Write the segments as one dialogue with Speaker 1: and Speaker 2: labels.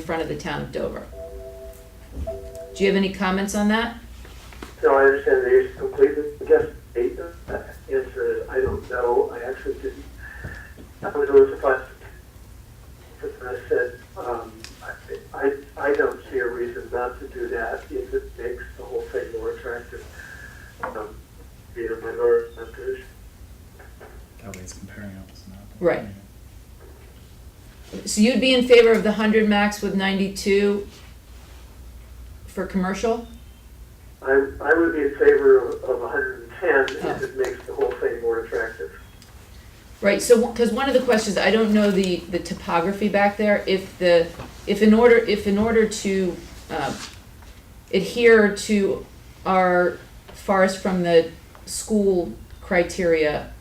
Speaker 1: in front of the town of Dover. Do you have any comments on that?
Speaker 2: No, I understand they used to completely guess date. The answer is, I don't know, I actually didn't. I was a little surprised. Because I said, um, I- I, I don't see a reason not to do that if it makes the whole thing more attractive. Um, Being a minority members.
Speaker 3: That way it's comparing apples and apples.
Speaker 1: Right. So you'd be in favor of the hundred max with ninety-two for commercial?
Speaker 2: I, I would be in favor of of 110 if it makes the whole thing more attractive.
Speaker 1: Right, so, because one of the questions, I don't know the, the topography back there, if the, if in order, if in order to uh, adhere to our forest from the school criteria,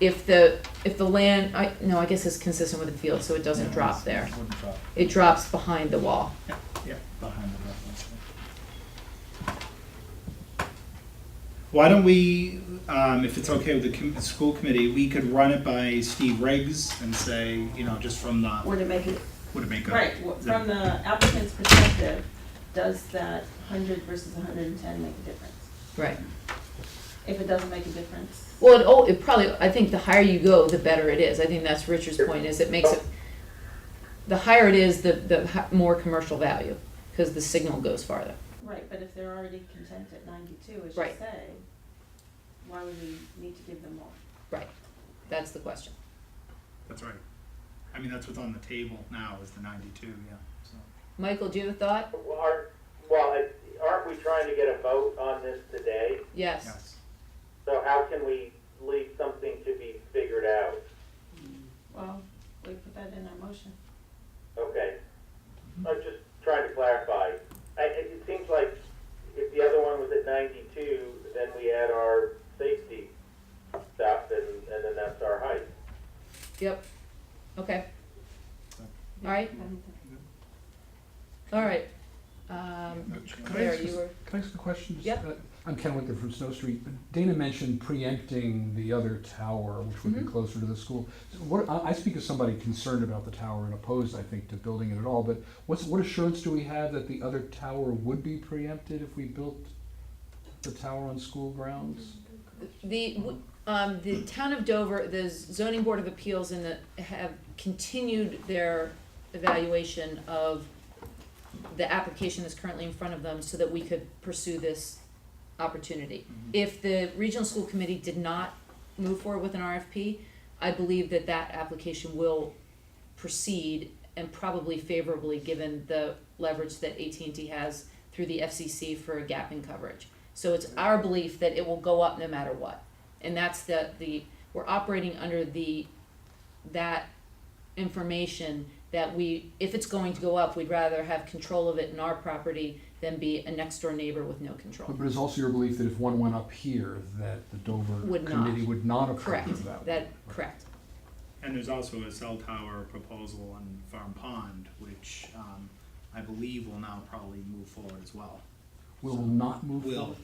Speaker 1: if the, if the land, I, no, I guess it's consistent with the field, so it doesn't
Speaker 3: Yeah,
Speaker 1: drop
Speaker 3: it's-
Speaker 1: there.
Speaker 3: It wouldn't drop,
Speaker 1: It drops behind the wall.
Speaker 3: yeah, yeah, behind the reference. Why don't we, um, if it's okay with the com- school committee, we could run it by Steve Riggs and say, you know, just from the,
Speaker 4: Or to make it,
Speaker 3: would it make a?
Speaker 4: right, wh- from the applicant's perspective, does that hundred versus hundred and ten make a difference?
Speaker 1: Right.
Speaker 4: If it doesn't make a difference,
Speaker 1: Well, it, oh, it probably, I think the higher you go, the better it is. I think that's Richard's point, is it makes it, the higher it is, the, the hi- more commercial value, because the signal goes farther.
Speaker 4: right, but if they're already content at ninety-two, as you
Speaker 1: Right.
Speaker 4: say, why would we need to give them more?
Speaker 1: Right, that's the question.
Speaker 3: That's right. I mean, that's what's on the table now is the ninety-two, yeah, so.
Speaker 1: Michael, do you have a thought?
Speaker 5: Well, aren't- Well, it- aren't we trying to get a vote on this today?
Speaker 1: Yes.
Speaker 3: Yes.
Speaker 5: So how can we leave something to be figured out?
Speaker 4: Well, we put that in our motion.
Speaker 5: Okay. I'm just trying to clarify. I, it it seems like if the other one was at ninety-two, then we add our safety stuff and, and then that's our height.
Speaker 1: Yep. Okay, all right, all right. Um,
Speaker 6: Could I
Speaker 1: Claire,
Speaker 6: ask,
Speaker 1: you
Speaker 6: a-
Speaker 1: were,
Speaker 6: could I ask a question? Just,
Speaker 1: Yep.
Speaker 6: uh, I'm Ken Winkler from Snow Street. Dana mentioned preempting the other tower, which would
Speaker 1: Mhm.
Speaker 6: be closer to the school. So What, I, I speak as somebody concerned about the tower and opposed, I think, to building it at all, but what's, what assurance do we have that the other tower would be preempted if we built the tower on school grounds?
Speaker 1: the, w- um, the town of Dover, the zoning board of appeals in the, have continued their evaluation of the application that's currently in front of them so that we could pursue this opportunity.
Speaker 3: Mm-hmm.
Speaker 1: If the regional school committee did not move forward with an RFP, I believe that that application will proceed and probably favorably, given the leverage that AT&T has through the FCC for gap in coverage. So it's our belief that it will go up no matter what. And that's the, the, we're operating under the, that information that we, if it's going to go up, we'd rather have control of it in our property than be a next door neighbor with no control.
Speaker 6: But but it's also your belief that if one went up here, that the Dover
Speaker 1: Would not.
Speaker 6: committee would not approve
Speaker 1: Correct,
Speaker 6: of that one?
Speaker 1: that, correct,
Speaker 3: And there's also a cell tower proposal on Farm Pond, which, um, I believe will now probably move forward as well.
Speaker 6: Will not move
Speaker 3: Will.
Speaker 6: forward?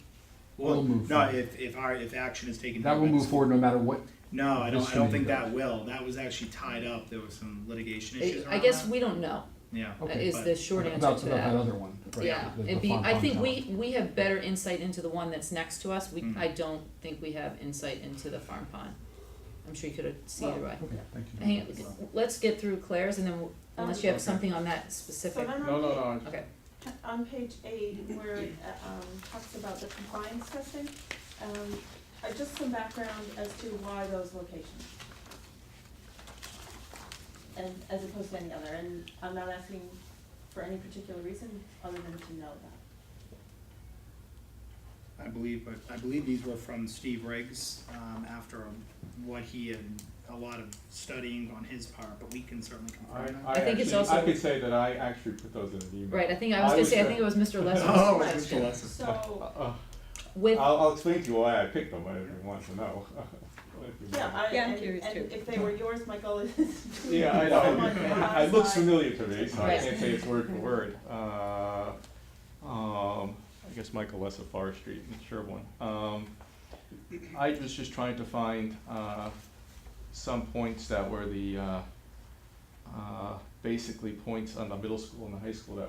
Speaker 3: Well,
Speaker 6: Will move
Speaker 3: no,
Speaker 6: forward.
Speaker 3: if, if our, if action is taken.
Speaker 6: That
Speaker 3: here
Speaker 6: will
Speaker 3: by the
Speaker 6: move
Speaker 3: school-
Speaker 6: forward no matter what
Speaker 3: No, I don't,
Speaker 6: This
Speaker 3: I don't
Speaker 6: committee
Speaker 3: think that will, that was actually tied up, there was some litigation issues
Speaker 1: I
Speaker 3: around
Speaker 1: guess
Speaker 3: that,
Speaker 1: we don't know,
Speaker 3: yeah.
Speaker 1: uh,
Speaker 6: Okay,
Speaker 1: is
Speaker 3: but-
Speaker 1: the short answer to that.
Speaker 6: About, about that other one. right,
Speaker 1: Yeah,
Speaker 6: the- the
Speaker 1: it'd be, I
Speaker 6: Fontan
Speaker 1: think
Speaker 6: Tower.
Speaker 1: we, we have better insight into the one that's next to us, we,
Speaker 3: Mm.
Speaker 1: I don't think we have insight into the farm pond. I'm sure you could have seen it, right?
Speaker 6: Okay, thank you.
Speaker 1: Hang, on, let's get through Claire's and then, we'll- unless you have
Speaker 6: Okay.
Speaker 1: something on that
Speaker 4: Oh. So
Speaker 1: specific,
Speaker 4: then
Speaker 7: No, no,
Speaker 4: on
Speaker 7: no,
Speaker 1: okay,
Speaker 4: page, on page eight, where it uh, um, talks about the compliance testing, um, uh, just some background as to why those locations. And as opposed to any other, and I'm not asking for any particular reason other than to know that.
Speaker 3: I believe, but I believe these were from Steve Riggs, um, after what he had, a lot of studying on his part, but we can certainly
Speaker 7: I,
Speaker 3: confirm that.
Speaker 7: I
Speaker 1: I think it's
Speaker 7: actually, I
Speaker 1: also-
Speaker 7: could say that I actually put those in an email.
Speaker 1: right, I think, I was
Speaker 7: I
Speaker 1: gonna
Speaker 7: was
Speaker 1: say, I
Speaker 7: there.
Speaker 1: think it was Mr.
Speaker 3: Oh,
Speaker 1: Lester's
Speaker 3: it was
Speaker 1: question,
Speaker 3: the lesson.
Speaker 7: Uh,
Speaker 4: So,
Speaker 7: uh,
Speaker 1: with,
Speaker 7: I'll, I'll explain to you why I picked them, if you want to know. If you
Speaker 4: yeah,
Speaker 7: want.
Speaker 4: I,
Speaker 8: Yeah, I'm
Speaker 4: and,
Speaker 8: curious too.
Speaker 4: and if they were yours, my goal is to.
Speaker 7: Yeah, I
Speaker 4: someone who
Speaker 7: know, it
Speaker 4: has
Speaker 7: looks
Speaker 4: my-
Speaker 7: familiar to me, so I
Speaker 1: Right.
Speaker 7: can't say it's word for word. Uh, um, I guess Michael Lessa, Forest Street in Sherwin. Um, I was just trying to find, uh, some points that were the, uh, uh, basically points on the middle school and the high school that